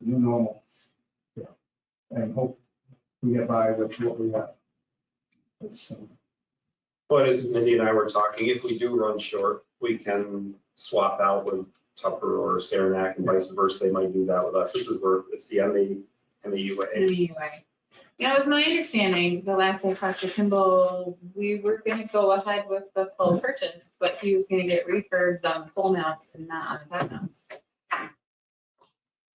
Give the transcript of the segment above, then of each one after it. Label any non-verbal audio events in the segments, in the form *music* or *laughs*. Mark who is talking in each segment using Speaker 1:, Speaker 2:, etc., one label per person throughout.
Speaker 1: new normal.
Speaker 2: Yeah.
Speaker 1: And hope we get by with what we have. It's, um,
Speaker 3: But as Mindy and I were talking, if we do run short, we can swap out with Tupper or Saranac and vice versa. They might do that with us. This is where, it's the MA, MAUA.
Speaker 4: Anyway, yeah, it was my understanding, the last I talked to Kimball, we were gonna go ahead with the full purchase, but he was gonna get refurbs on pole mounts and not on bed mounts.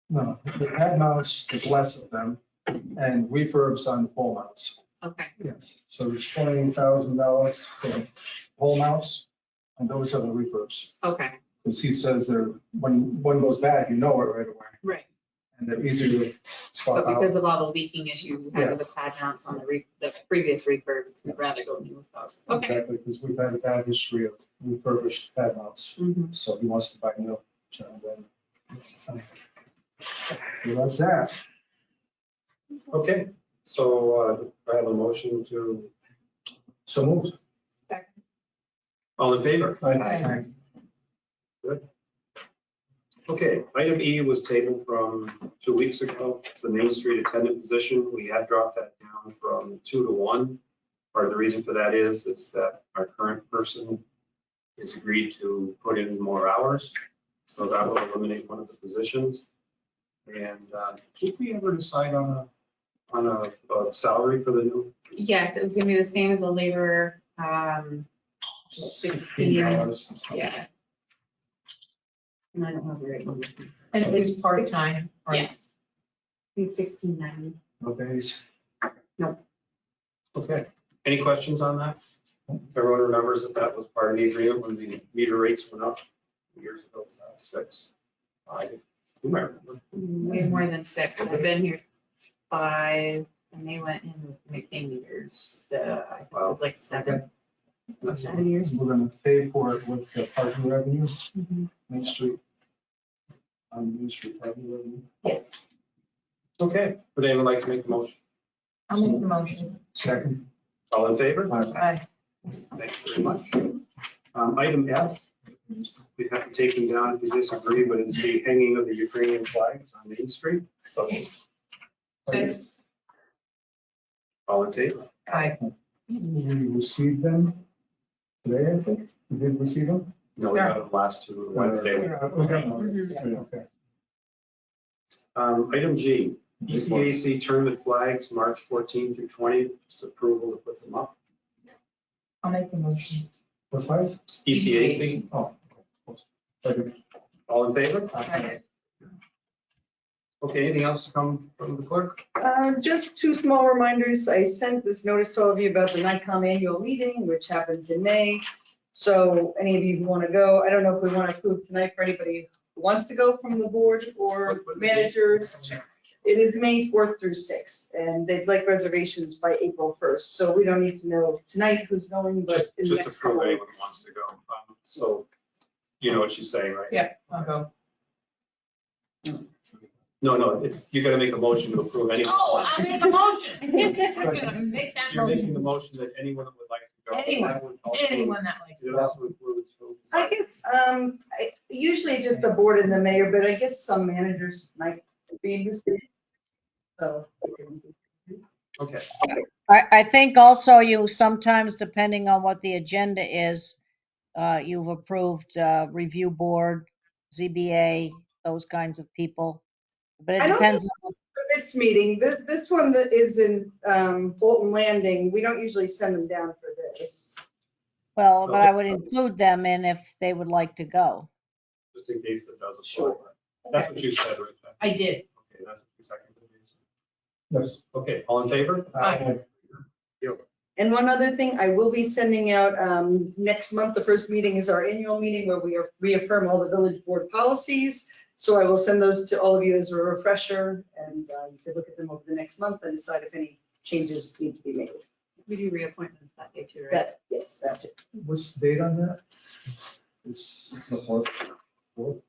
Speaker 1: no, the head mounts, there's less of them, and refurbs on the pole mounts.
Speaker 4: Okay,
Speaker 1: Yes, so there's twenty thousand dollars for pole mounts, and those are the refurbs.
Speaker 4: okay,
Speaker 1: Because he says they're, when one goes bad, you know it right away,
Speaker 4: right,
Speaker 1: and they're easier to
Speaker 4: but
Speaker 1: swap out.
Speaker 4: because of all the leaking issues we had with the pad mounts on the re, the previous refurbs, we'd rather go new with those. Okay.
Speaker 1: Exactly, because we've had a bad history of refurbished pad mounts,
Speaker 4: Mhm.
Speaker 1: so he wants to buy new. so then- Well, That's that.
Speaker 3: Okay, so uh, I have a motion to,
Speaker 1: So moved.
Speaker 3: all in favor?
Speaker 1: Aye.
Speaker 3: Okay, item E was tabled from two weeks ago, the Main Street attendant position. We had dropped that down from two to one. Part of the reason for that is, is that our current person has agreed to put in more hours. So that will eliminate one of the positions. And uh, did we ever decide on a, on a a salary for the new?
Speaker 4: Yes, it was gonna be the same as a laborer, um,
Speaker 1: Sixteen dollars.
Speaker 4: yeah. And I don't have the right one.
Speaker 5: And it was part-time, right?
Speaker 4: Yes. It's sixteen ninety.
Speaker 1: No days.
Speaker 3: Okay, any questions on that? Everyone remembers that that was part of the agreement when the meter rates went up years ago, it was uh, six. I, who might remember?
Speaker 4: Way more than six. I've been here five and they went in with McKinney years. Uh, I think it was like seven,
Speaker 1: That's-
Speaker 4: seven years. Mm-hmm.
Speaker 1: We're gonna pay for it with the parking revenue, Main Street. On Main Street parking revenue.
Speaker 4: Yes.
Speaker 3: Okay, would anyone like to make a motion?
Speaker 5: I'll make the motion.
Speaker 1: Second.
Speaker 3: All in favor?
Speaker 1: Aye.
Speaker 5: Aye.
Speaker 3: Thank you very much. Um, item F, we have to take them down if you disagree, but it's the hanging of the Ukrainian flags on Main Street. So, all in favor?
Speaker 5: Aye.
Speaker 1: We received them today, I think. We did receive them?
Speaker 3: No, we got the last two Wednesday.
Speaker 1: Yeah, We got them.
Speaker 5: Mhm.
Speaker 1: Okay.
Speaker 3: Um, item G, E ECAC tournament flags, March 14 through 20, just approval to put them up.
Speaker 5: I'll make the motion.
Speaker 1: What size?
Speaker 3: E ECAC,
Speaker 1: Oh. okay. Second.
Speaker 3: all in favor?
Speaker 5: Aye.
Speaker 3: Okay, anything else come from the clerk?
Speaker 6: Uh, Just two small reminders. I sent this notice to all of you about the NICOM annual meeting, which happens in May. So any of you who want to go, I don't know if we want to approve tonight for anybody who wants to go from the board or managers. It is May 4th through 6th, and they'd like reservations by April 1st. So we don't need to know tonight who's going, but
Speaker 3: Just
Speaker 6: in the
Speaker 3: just
Speaker 6: next
Speaker 3: approve
Speaker 6: couple
Speaker 3: anyone who
Speaker 6: weeks.
Speaker 3: wants to go. Um, So, you know what she's saying, right?
Speaker 5: I'll go.
Speaker 3: No, no, it's, you gotta make a motion to approve anyone.
Speaker 7: Oh, I made a
Speaker 4: *laughs*
Speaker 7: motion. I'm gonna make that
Speaker 3: You're
Speaker 7: motion.
Speaker 3: making the motion that anyone that would like to go.
Speaker 7: Anyone.
Speaker 3: That would also-
Speaker 7: Anyone that likes.
Speaker 3: It also includes.
Speaker 6: I guess, um, I- usually just the board and the mayor, but I guess some managers might be interested. So.
Speaker 3: Okay,
Speaker 8: I, I think also you sometimes, depending on what the agenda is, uh, you've approved, uh, review board, ZBA, those kinds of people. But it
Speaker 6: I don't
Speaker 8: depends,
Speaker 6: For This meeting, this, this one that is in um, Bolton Landing, we don't usually send them down for this.
Speaker 8: well, but I would include them in if they would like to go.
Speaker 3: just in case that doesn't. Sure. That's what you said, right?
Speaker 7: I
Speaker 3: Jen?
Speaker 7: did.
Speaker 3: Okay, that's what you seconded.
Speaker 1: Yes. uh,
Speaker 3: Okay, all in favor?
Speaker 7: Aye.
Speaker 6: And one other thing, I will be sending out, um, next month, the first meeting is our annual meeting where we reaffirm all the village board policies. So I will send those to all of you as a refresher and uh, you can look at them over the next month and decide if any changes need to be made.
Speaker 4: We do reappointments that day too, right?
Speaker 6: That, yes, that's it.
Speaker 1: What's the date on that? It's the fourth, fourth,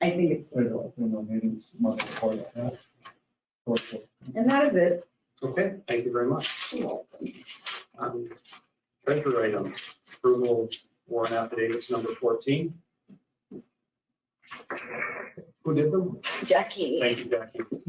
Speaker 6: I think it's,
Speaker 1: I don't know, maybe it's month before that. Fourth, fourth.
Speaker 6: and that is it.
Speaker 3: Okay, thank you very much. Um, Treasurer item, approval warrant affidavits number 14. Who did them?
Speaker 2: Jackie.
Speaker 3: Thank you, Jackie.